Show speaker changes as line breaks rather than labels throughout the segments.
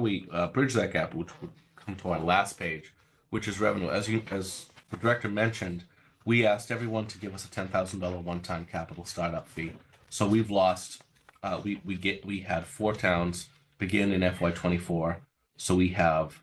we uh, bridge that gap, which would come to our last page, which is revenue. As you, as the director mentioned, we asked everyone to give us a ten thousand dollar one time capital startup fee. So we've lost. Uh, we we get we had four towns begin in FY twenty four. So we have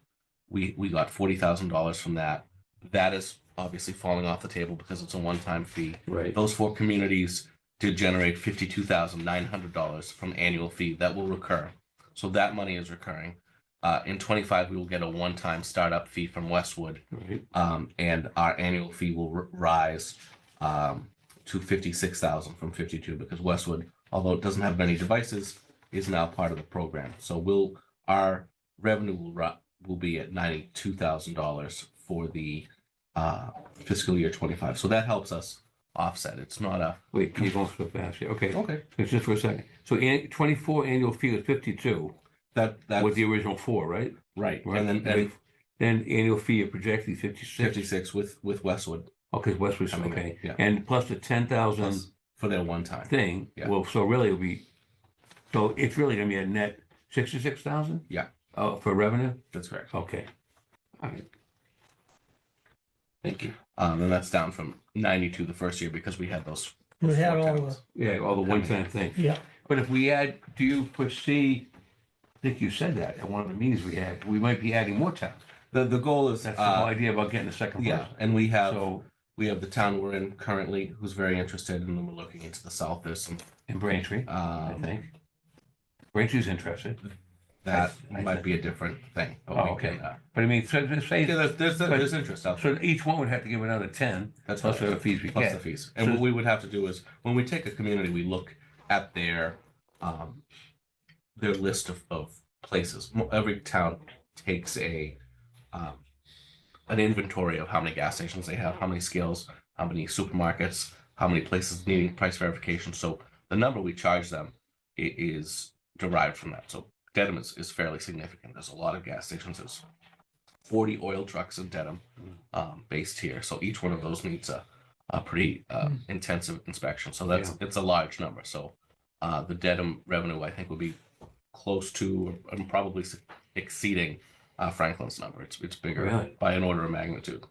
we we got forty thousand dollars from that. That is obviously falling off the table because it's a one time fee.
Right.
Those four communities did generate fifty-two thousand nine hundred dollars from annual fee that will recur. So that money is recurring. Uh, in twenty-five, we will get a one-time startup fee from Westwood,
Right.
um, and our annual fee will r- rise um, to fifty-six thousand from fifty-two because Westwood, although it doesn't have many devices, is now part of the program. So will our revenue will ru- will be at ninety-two thousand dollars for the uh, fiscal year twenty-five. So that helps us offset. It's not a
Wait, you're going so fast here. Okay,
okay.
so just for a second. So an, twenty-four annual fee was fifty-two
That that
with the original four, right?
right.
Right.
and then and
Then annual fee you're projecting fifty-six. Oh,
fifty-six with with Westwood
Okay, Westwood's,
coming in.
okay.
Yeah.
And plus the ten thousand
Plus for their one time.
thing,
Yeah.
well, so really it'll be, so it's really gonna be a net sixty-six thousand?
Yeah.
Oh, for revenue?
That's correct.
Okay. All right. Thank you.
Um, and that's down from ninety-two the first year because we had those.
We had
four
all the,
towns.
Yeah, all the one-time thing.
yeah,
But if we add, do you foresee, I think you said that at one of the meetings we had, we might be adding more towns.
The the goal is
That's the whole
uh,
idea about getting a second
yeah,
person.
and we have
So,
we have the town we're in currently who's very interested, and then we're looking into the south. There's some
in Braintree, I
uh,
think. Braintree's interested,
that
I- I
might
think-
be a different thing. but
Oh,
we can, uh,
but I mean, so to say,
Yeah, there's there's,
But-
there's interest out there.
so each one would have to give another ten,
That's
plus
right.
the fees we
plus the
get.
fees. And what we would have to do is, when we take a community, we look at their, um, their list of, of places. Mo- Every town takes a, um, an inventory of how many gas stations they have, how many scales, how many supermarkets, how many places needing price verification. So the number we charge them i- is derived from that. So Dedham is, is fairly significant. There's a lot of gas stations. There's forty oil trucks in Dedham, um, based here. So each one of those needs a, a pretty uh,
Hmm.
intensive inspection. So that's it's a large number. So uh, the Dedham revenue, I think, would be close to and probably s- exceeding uh, Franklin's number. It's it's bigger
Really?
by an order of magnitude.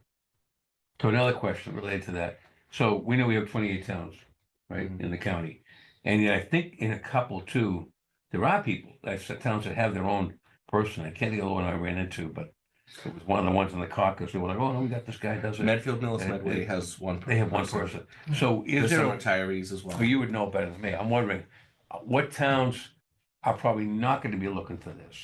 So another question related to that. So we know we have twenty-eight towns, right,
Mm-hmm.
in the county. And yet I think in a couple too, there are people, that's the towns that have their own person. I can't think of the one I ran into, but it was one of the ones in the caucus. They were like, oh, no, we got this guy, does it.
Medfield Millis
They-
Medway
they-
has one. per-
They have one person. So is
There's
there,
some
a-
retirees as well.
well, you would know better than me. I'm wondering, uh, what towns are probably not going to be looking for this?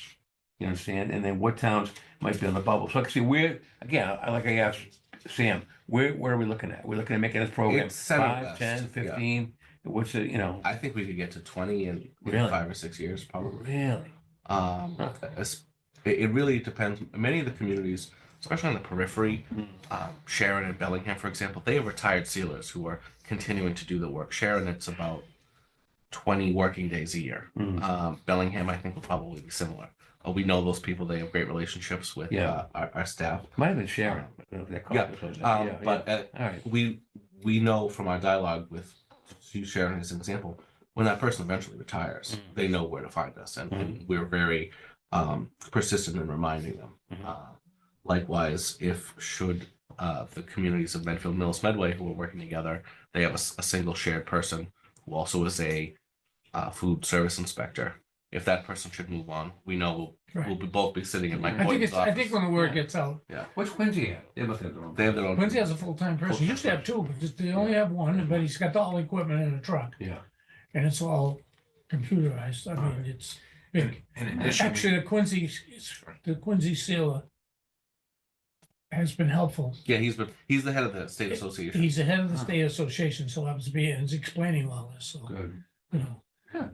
You understand? And then what towns might be on the bubble? So I can see where, again, I- like I asked Sam, where, where are we looking at? We're looking at making this program
It's center
five,
west,
ten,
yeah.
fifteen? What's it, you know,
I think we could get to twenty in in
Really?
five or six years, probably.
really?
Um,
Huh.
es- it, it really depends. Many of the communities, especially on the periphery,
Mm.
um, Sharon and Bellingham, for example, they have retired sealers who are continuing to do the work. Sharon, it's about twenty working days a year.
Mm.
Um, Bellingham, I think, will probably be similar. Uh, we know those people; they have great relationships with
Yeah.
uh, our, our staff.
Might have been Sharon. I don't know if that caught
Yeah,
us, was it?
Um,
Yeah, yeah.
but uh,
All right,
we we know from our dialogue with you sharing as an example when that person eventually retires
Mm.
Mhm.
they know where to find us and,
Mm-hmm.
and we're very um, persistent in reminding them
Mm-hmm.
Mhm.
uh, likewise if should uh, the communities of medfield mills medway who are working together they have a, s- a single shared person who also is a uh, food service inspector if that person should move on we know we'll, we'll
right.
be both be sitting in my
I think
Boynton's
it's, I
office.
think when the word gets out,
what's Quincy at? They must have their own.
they have their own
Quincy has a full-time person, used to have two, but just, they only have one, but he's got all the equipment in a truck,
Yeah.
and it's all computerized, I mean, it's big.
In addition,
Actually, the Quincy, the Quincy sealer has been helpful.
yeah he's been he's the head of the state association
He's the head of the state association, so happens to be, here, and is explaining all this, so.
Good.
you
Huh.
know.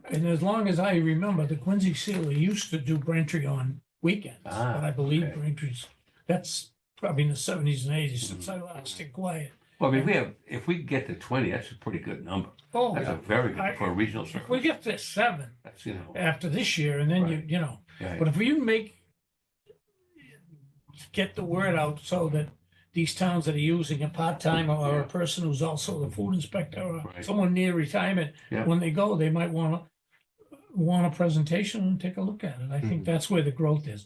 And as long as I remember, the Quincy Sealer used to do Braintree on weekends,
Ah,
but I believe
okay.
Braintree's, that's probably in the seventies and eighties since I last inquired.
Well, I mean, we have, if we get to twenty, that's a pretty good number.
Oh,
That's a
yeah.
very good,
I-
for a regional
if we
circle.
get to seven
That's, you know.
after this year and then you,
Right.
you know,
yeah.
but if you make get the word out so that these towns that are using a part-time or a
Yeah.
person who's also the food inspector or
Right.
someone near retirement,
Yeah.
when they go, they might want to want a presentation and take a look at it. I think
Mhm.
Hmm.
that's where the growth is.